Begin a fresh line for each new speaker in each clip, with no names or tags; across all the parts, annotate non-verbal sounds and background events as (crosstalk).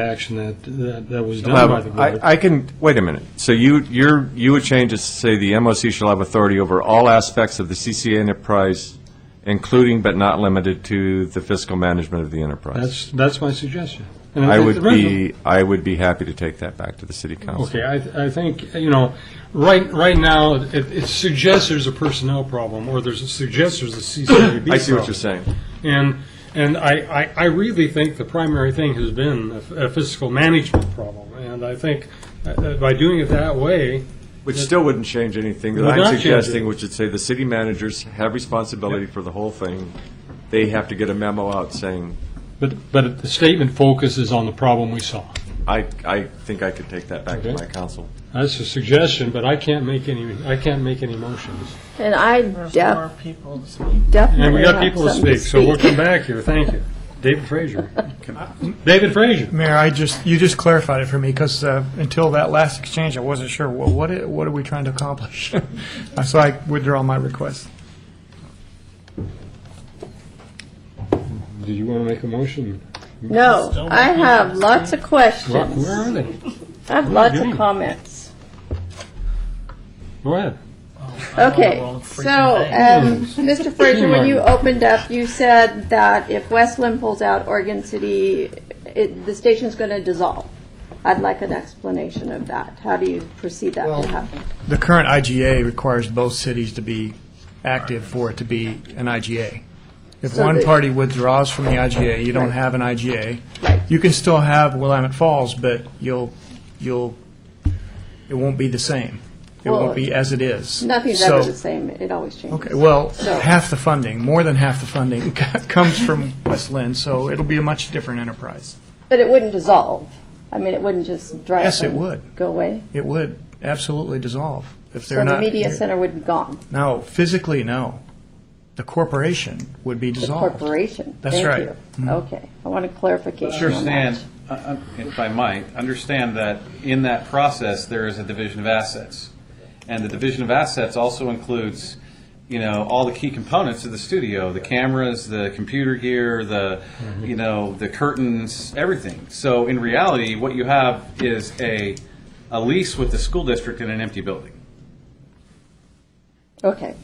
action that, that- that was done by the
Well,
board.
I I can, wait a minute. So you, you're, you would change it to say the MOC shall have authority over all aspects of the CCA enterprise, including but not limited to the fiscal management of the enterprise.
That's, that's my suggestion. And
I
think
would
the rest of-
be, I would be happy to take that back to the city council.
Okay, I, I think, you know, right, right now, it, it suggests there's a personnel problem, or there's, it suggests there's a CCAB problem.
(coughs) I see what you're saying.
And, and I, I, I really think the primary thing has been a a fiscal management problem. And I think uh, by doing it that way,
Which still wouldn't change anything that
Would not
I'm
change it.
suggesting, which would say the city managers have responsibility for the whole thing. They have to get a memo out saying,
but, but the statement focuses on the problem we saw.
I, I think I could take that back to
Okay.
my council.
That's a suggestion, but I can't make any, I can't make any motions.
And I
There's
def-
more people to speak.
definitely.
And we got
have
people to
something
speak, so we'll come back here, thank you. David Frazier. David Frazier.
Mayor, I just, you just clarified it for me, because until that last exchange, I wasn't sure, well, what, i- what are we trying to accomplish? (laughs) Uh, So I withdraw my request.
Do you want to make a motion?
(laughs) No, I have lots of
Where where
questions.
are they?
I have lots
doing?
of comments.
Go ahead.
Okay,
well, freaking
so, um, Mr. Frazier, when you
Martin.
opened up, you said that if Westland pulls out Oregon City, it, the station's gonna dissolve. I'd like an explanation of that. How do you perceive that
Well-
to happen?
The current IGA requires both cities to be active for it to be an IGA. If
So
one
the-
party withdraws from the IGA, you don't
Right.
have an IGA.
Right.
You can still have Willamette Falls, but you'll, you'll, it won't be the same. It
Well,
won't be as it is.
Nothing's ever
So-
the same, it always changes.
Okay, well,
So-
half the funding, more than half the funding (laughs) comes from West Lynn, so it'll be a much different enterprise.
But it wouldn't dissolve. I mean, it wouldn't just dry up.
Yes, it
and
would.
Go away.
It would absolutely dissolve if
So
they're
the
not.
media center would be gone,
No, physically, no. The corporation would be
the
dissolved.
corporation.
That's
Thank
right. Mm-hmm.
you. Okay, I want a clarification on that.
Understand, uh, uh, if I might, understand that in that process, there is a division of assets. And the division of assets also includes, you know, all the key components of the studio, the cameras, the computer gear, the,
Mm-hmm.
you know, the curtains, everything. So in reality, what you have is a, a lease with the school district in an empty building.
Okay.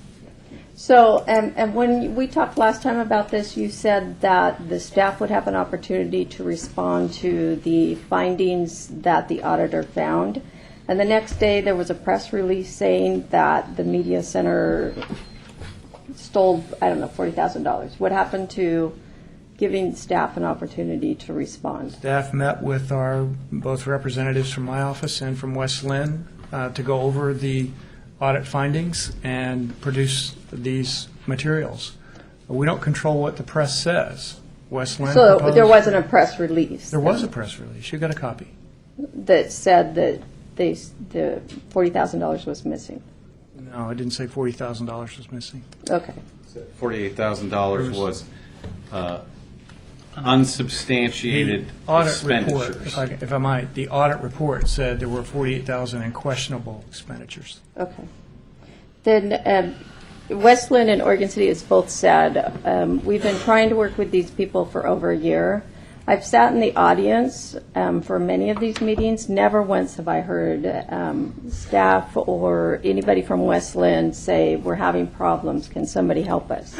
So, and, and when we talked last time about this, you said that the staff would have an opportunity to respond to the findings that the auditor found. And the next day, there was a press release saying that the media center stole, I don't know, $40,000. What happened to giving staff an opportunity to respond?
Staff met with our, both representatives from my office and from West Lynn uh, to go over the audit findings and produce these materials. We don't control what the press says. West Lynn
So there
proposed-
wasn't a press release
There was a press release. You got a copy.
that said that they, s- the $40,000 was missing.
No, I didn't say forty thousand dollars was missing.
Okay.
$48,000 was uh, unsubstantiated
The Audit report,
expenditures.
if I, if I might, the audit report said there were forty-eight thousand in questionable expenditures.
Okay. Then um, Westland and Oregon City has both said, um, we've been trying to work with these people for over a year. I've sat in the audience um, for many of these meetings. Never once have I heard um, staff or anybody from Westland say, we're having problems. Can somebody help (coughs) us?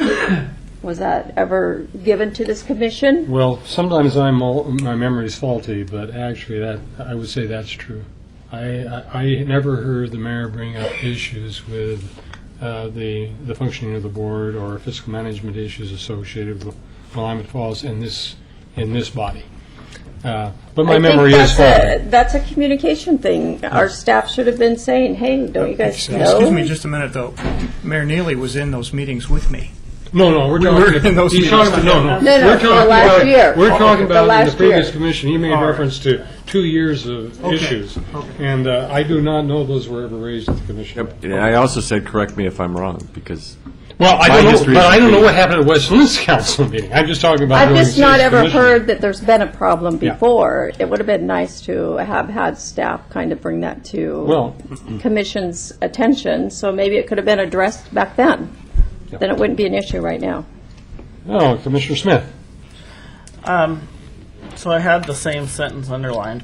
Was that ever given to this commission?
Well, sometimes I'm, all- my memory's faulty, but actually that, I would say that's true. I, I I never heard the mayor bring up issues with uh, the, the functioning of the board or fiscal management issues associated with Willamette Falls in this, in this body. Uh, But
I
my
think
memory is
that's a-
faulty.
That's a communication thing. Our staff should have been saying, hey, don't you guys know?
Excuse me just a minute, though. Mayor Neely was in those meetings with me.
No, no, we're
were
talking,
in those
he's talking, about-
meetings.
no, no.
No, no,
We're
for the
talking
last
about-
year.
We're talking
The
about in the
last year.
previous commission, he made
All right.
reference to two years of
Okay,
issues.
okay.
And uh, I do not know those were ever raised at the commission.
Yep, and I also said, correct me if I'm wrong, because
Well, I
My
don't know,
history
but
is
I don't know
complete.
what happened at Westland's council meeting. I'm just talking about.
I've
during
just not
this
ever
commission.
heard that there's been a problem
Yeah.
before. It would have been nice to have had staff kind of bring that to
Well-
commission's attention, so maybe it could have been addressed back then. Then it wouldn't be an issue right now.
No, Commissioner Smith.
So I had the same sentence underlined,